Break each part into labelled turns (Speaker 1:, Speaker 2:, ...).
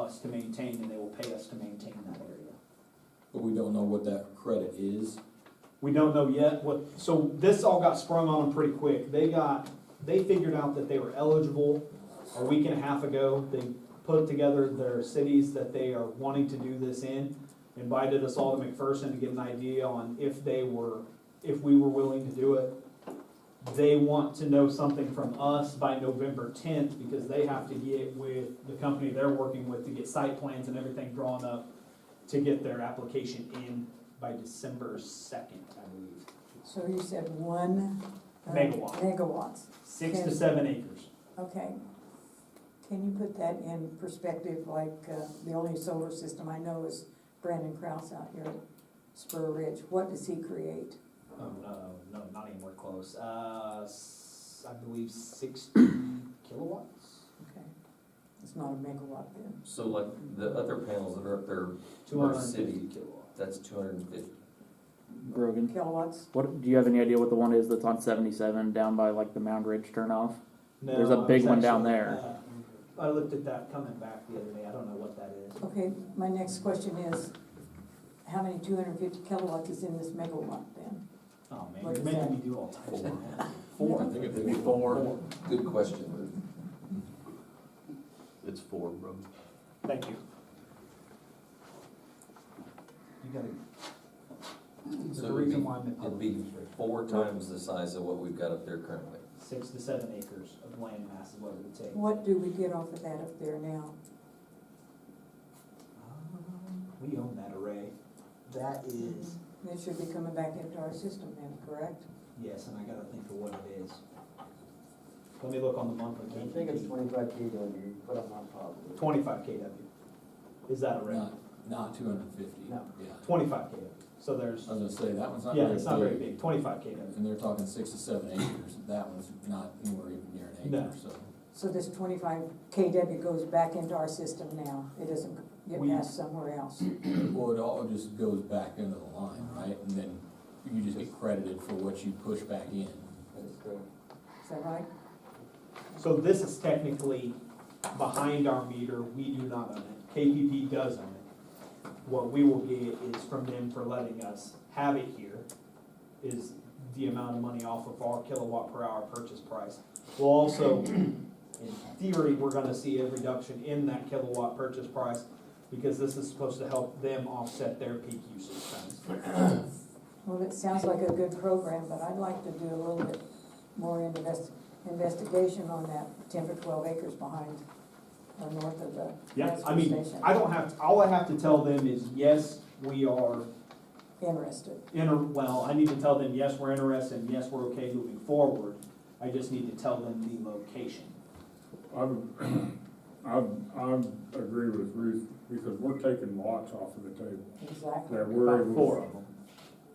Speaker 1: us to maintain, and they will pay us to maintain that area.
Speaker 2: But we don't know what that credit is.
Speaker 1: We don't know yet what, so this all got sprung on them pretty quick. They got, they figured out that they were eligible a week and a half ago. They put together their cities that they are wanting to do this in, invited us all to McPherson to get an idea on if they were, if we were willing to do it. They want to know something from us by November tenth, because they have to get with the company they're working with to get site plans and everything drawn up to get their application in by December second, I believe.
Speaker 3: So you said one. uh,
Speaker 1: Megawatt.
Speaker 3: Megawatts,
Speaker 1: Six to
Speaker 3: Okay.
Speaker 1: seven acres.
Speaker 3: okay. Can you put that in perspective, like, uh, the only solar system I know is Brandon Kraus out here at Spur Ridge, what does he create?
Speaker 1: Oh, no, no, not anywhere close. Uh, s- I believe sixty kilowatts,
Speaker 3: Okay, It's not a megawatt then,
Speaker 4: So like the other panels that are up there,
Speaker 1: two hundred and fifty
Speaker 4: city.
Speaker 1: kilowatts.
Speaker 4: that's two hundred and fifty.
Speaker 5: Grogan.
Speaker 3: kilowatts?
Speaker 5: What do you have any idea what the one is that's on 77 down by like the Mound Ridge turnoff?
Speaker 1: No,
Speaker 5: There's a
Speaker 1: I was
Speaker 5: big one down
Speaker 1: actually,
Speaker 5: there.
Speaker 1: uh, I looked at that coming back the other day, I don't know what that is.
Speaker 3: Okay, my next question is, how many two hundred and fifty kilowatts is in this megawatt then?
Speaker 1: Oh, man,
Speaker 3: What
Speaker 1: you're
Speaker 3: is
Speaker 1: making
Speaker 3: that?
Speaker 1: me do all types of math.
Speaker 4: I
Speaker 1: Four.
Speaker 4: think it'd be
Speaker 2: Before.
Speaker 4: Good question.
Speaker 6: It's four, bro.
Speaker 1: Thank you. You gotta, there's
Speaker 4: So
Speaker 1: a
Speaker 4: it would
Speaker 1: reason
Speaker 4: be-
Speaker 1: why I'm in
Speaker 4: It'd
Speaker 1: public
Speaker 4: be
Speaker 1: interest.
Speaker 4: four times the size of what we've got up there currently.
Speaker 1: Six to seven acres of land mass is what it would take.
Speaker 3: What do we get off of that up there now?
Speaker 1: Um, We own that array. That is.
Speaker 3: It should be coming back into our system then, correct?
Speaker 1: Yes, and I gotta think of what it is. Let me look on the monthly.
Speaker 7: I think it's twenty-five KW, you put them on top of it.
Speaker 1: Twenty-five KW. Is that a array?
Speaker 2: Not, not two hundred and fifty, yeah.
Speaker 7: No.
Speaker 1: Twenty-five KW. So there's,
Speaker 2: I was gonna say, that one's not
Speaker 1: yeah, it's not very
Speaker 2: very big.
Speaker 1: big, twenty-five KW.
Speaker 2: And they're talking six to seven acres, that one's not anywhere even near an
Speaker 1: No.
Speaker 2: acre, so.
Speaker 3: So this twenty-five KW goes back into our system now, it doesn't get
Speaker 1: We-
Speaker 3: passed somewhere else.
Speaker 2: Well, it all just goes back into the line, right? And then you just get credited for what you push back in.
Speaker 7: That's correct.
Speaker 3: Is that right?
Speaker 1: So this is technically behind our meter. We do not own it. KPP does own it. What we will get is from them for letting us have it here is the amount of money off of our kilowatt per hour purchase price. We'll also, in theory, we're gonna see a reduction in that kilowatt purchase price because this is supposed to help them offset their peak usage times.
Speaker 3: Well, it sounds like a good program, but I'd like to do a little bit more invest, investigation on that ten or twelve acres behind or north of the
Speaker 1: Yeah, I
Speaker 3: transfer
Speaker 1: mean,
Speaker 3: station.
Speaker 1: I don't have, all I have to tell them is, yes, we are
Speaker 3: Interested.
Speaker 1: inter, well, I need to tell them, yes, we're interested, and yes, we're okay moving forward. I just need to tell them the location.
Speaker 8: I, I, I agree with Ruth, because we're taking lots off of the table.
Speaker 3: Exactly,
Speaker 8: That we're
Speaker 1: About
Speaker 8: able,
Speaker 1: four of them,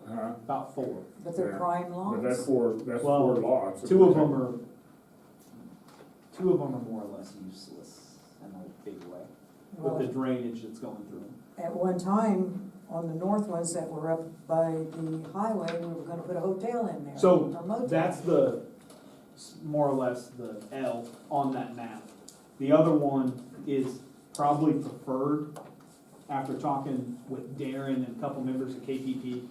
Speaker 8: huh?
Speaker 1: about four.
Speaker 3: but they're
Speaker 8: Yeah.
Speaker 3: prime
Speaker 8: But that's
Speaker 3: lots.
Speaker 8: four, that's four
Speaker 1: Well,
Speaker 8: lots.
Speaker 1: Two of them are, two of them are more or less useless in a big way, with the
Speaker 3: Well,
Speaker 1: drainage that's going through them.
Speaker 3: at one time, on the north ones that were up by the highway, we were gonna put a hotel in there.
Speaker 1: So,
Speaker 3: or motel.
Speaker 1: That's the, s- more or less the L on that map. The other one is probably preferred. After talking with Darren and a couple members of KPP,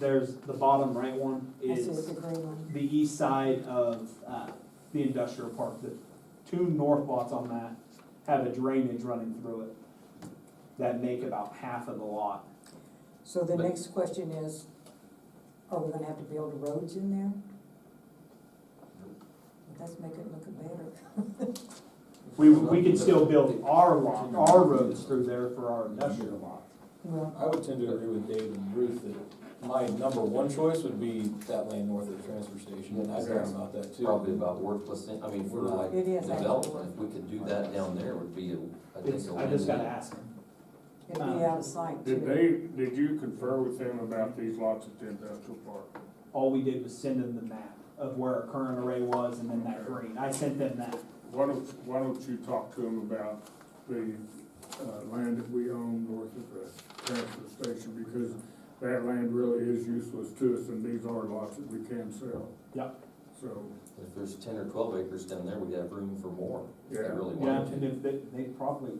Speaker 1: there's, the bottom right one
Speaker 3: I see it's
Speaker 1: is
Speaker 3: a gray one.
Speaker 1: the east side of, uh, the industrial park. The two north lots on that have a drainage running through it that make about half of the lot.
Speaker 3: So the
Speaker 4: But-
Speaker 3: next question is, are we gonna have to build roads in there? Let's make it look better.
Speaker 1: We, we could still build our lot, our roads through there for our industrial lot.
Speaker 3: Well,
Speaker 2: I would tend to agree with Dave and Ruth that my number one choice would be that land north of the transfer station, and I care about that too.
Speaker 4: Probably about worthless, thing. I mean, for like
Speaker 3: It is, I think.
Speaker 4: development, if we could do that down there would be, a- I think.
Speaker 1: It's,
Speaker 4: a
Speaker 1: I just gotta
Speaker 4: win-win.
Speaker 1: ask him.
Speaker 3: it'd be out of sight too.
Speaker 8: Did they, did you confer with them about these lots at the industrial park?
Speaker 1: All we did was send him the map of where our current array was and then that green. I sent them that.
Speaker 8: Why don't, why don't you talk to them about the, uh, land that we own north of the transfer station? Because that land really is useless to us, and these are lots that we can sell.
Speaker 1: Yep.
Speaker 8: So,
Speaker 4: If there's ten or twelve acres down there, we'd have room for more, if they
Speaker 8: Yeah.
Speaker 4: really
Speaker 1: Yeah,
Speaker 4: wanted
Speaker 1: and
Speaker 4: to.
Speaker 1: if they, they probably,